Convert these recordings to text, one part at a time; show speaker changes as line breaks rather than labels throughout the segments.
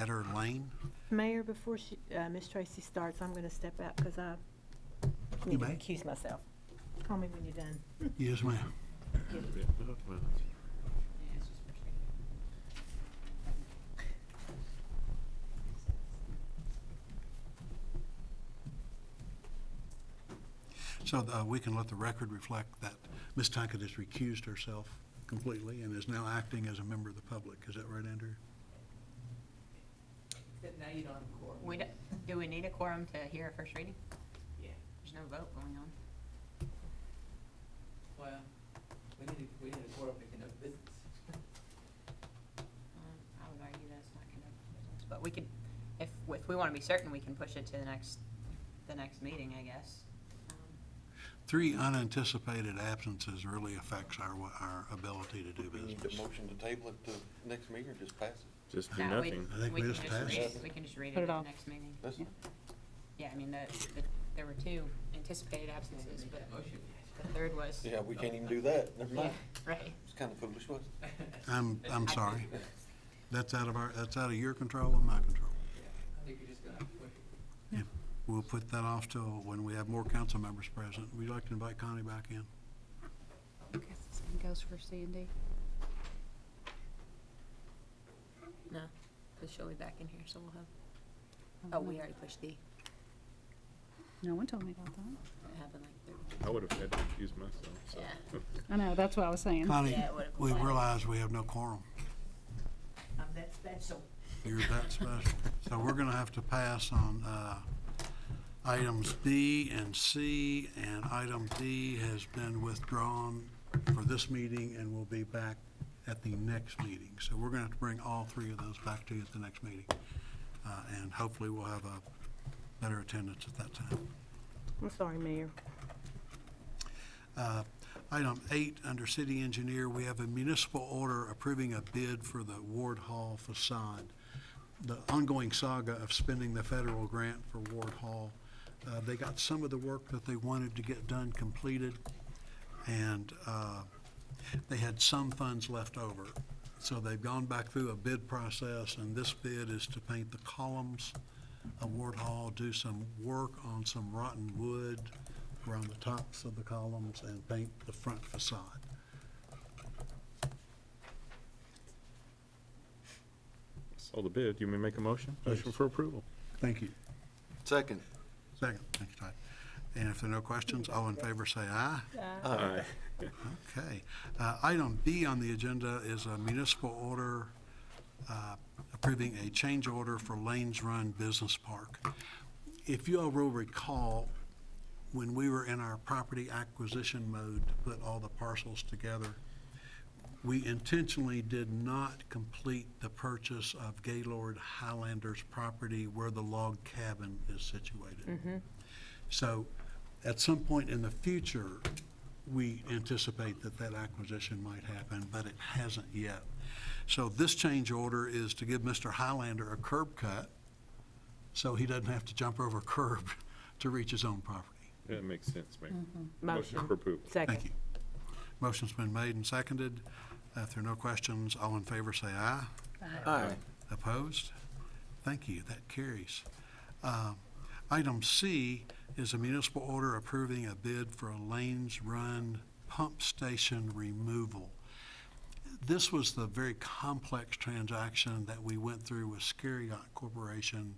Eder Lane.
Mayor, before she, uh, Ms. Tracy starts, I'm gonna step out because I
You
need to
may.
accuse myself. Call me when you're done.
Yes, ma'am. So uh, we can let the record reflect that Ms. Tackett has recused herself completely and is now acting as a member of the public. Is that right, Andrew?
Except now you don't have a quorum.
We, do- do we need a quorum to hear a first reading?
Yeah,
There's no vote going on.
well, we need, a- we need a quorum to conduct business.
Um, I would argue that's not conducting business, but we could, if, if we want to be certain, we can push it to the next, the next meeting, I guess. Um,
Three unanticipated absences really affects our, wa- our ability to do
We need a
business.
motion to table it to next meeting or just pass it?
Just do
that way
nothing.
I think
we
we
can
just
just read
passed.
it- We can just read
Put
it
it
at the
off.
next meeting.
That's,
Yeah, I mean, the, the, there were two anticipated absences, but
That motion.
the third was.
yeah, we can't even do that. Never mind.
Right.
It's kind of foolish, wasn't it?
I'm, I'm
I-
sorry. That's out of our, that's out of your control and my control.
Yeah, I think you're just gonna, have to wait.
If We'll put that off till when we have more council members present. We'd like to invite Connie back in.
Same goes for C and D. No, because she'll be back in here, so we'll have, oh, we already pushed D.
No one told me about that.
It happened like
I would have had to excuse myself, so.
Yeah.
I know, that's what I was saying.
Connie,
Yeah, it would've
we
been fine.
realize we have no quorum.
I'm that special.
You're that special. So we're going to have to pass on uh, items B and C, and item D has been withdrawn for this meeting and will be back at the next meeting. So we're going to have to bring all three of those back to you at the next meeting. Uh, And hopefully, we'll have a better attendance at that time.
I'm sorry, Mayor.
Uh, Item eight, under city engineer, we have a municipal order approving a bid for the Ward Hall facade. The ongoing saga of spending the federal grant for Ward Hall. Uh, They got some of the work that they wanted to get done completed, and uh, they had some funds left over. So they've gone back through a bid process, and this bid is to paint the columns of Ward Hall, do some work on some rotten wood around the tops of the columns, and paint the front facade.
Saw the bid. You may make a motion? Motion for approval.
Thank you.
Second.
Second. Thank you, Todd. And if there are no questions, all in favor say aye.
Aye.
Okay. Uh, Item B on the agenda is a municipal order uh, approving a change order for Lanes Run Business Park. If you all will recall, when we were in our property acquisition mode to put all the parcels together, we intentionally did not complete the purchase of Gaylord Highlander's property where the log cabin is situated. So at some point in the future, we anticipate that that acquisition might happen, but it hasn't yet. So this change order is to give Mr. Highlander a curb cut so he doesn't have to jump over a curb to reach his own property.
That makes sense, Mayor.
Mm-hmm.
Motion for approval.
Second.
Thank you. Motion's been made and seconded. If there are no questions, all in favor say aye.
Aye.
Opposed? Thank you, that carries. Um, Item C is a municipal order approving a bid for a Lanes Run pump station removal. This was the very complex transaction that we went through with Scariot Corporation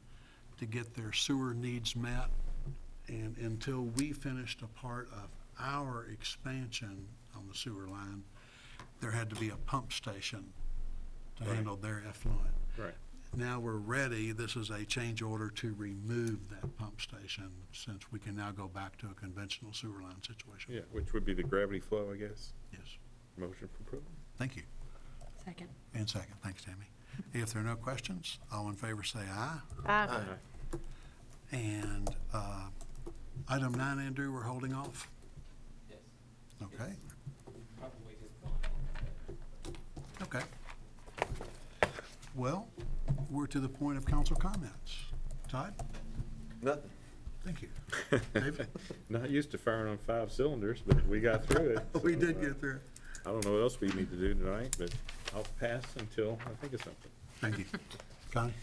to get their sewer needs met. And until we finished a part of our expansion on the sewer line, there had to be a pump station to handle their effluent.
Right.
Now we're ready, this is a change order to remove that pump station, since we can now go back to a conventional sewer line situation.
Yeah, which would be the gravity flow, I guess.
Yes,
Motion for approval.
thank you.
Second.
And second, thanks, Tammy. If there are no questions, all in favor say aye. Uh,
Aye.
Aye.
And uh, item nine, Andrew, we're holding off,
Yes,
okay?
probably just going on.
Okay. Well, we're to the point of council comments. Todd?
Nothing.
Thank you. David?
Not used to firing on five cylinders, but we got through it.
We
so,
did
uh,
get through.
I don't know what else we need to do tonight, but I'll pass until I think of something.
Thank you. Connie?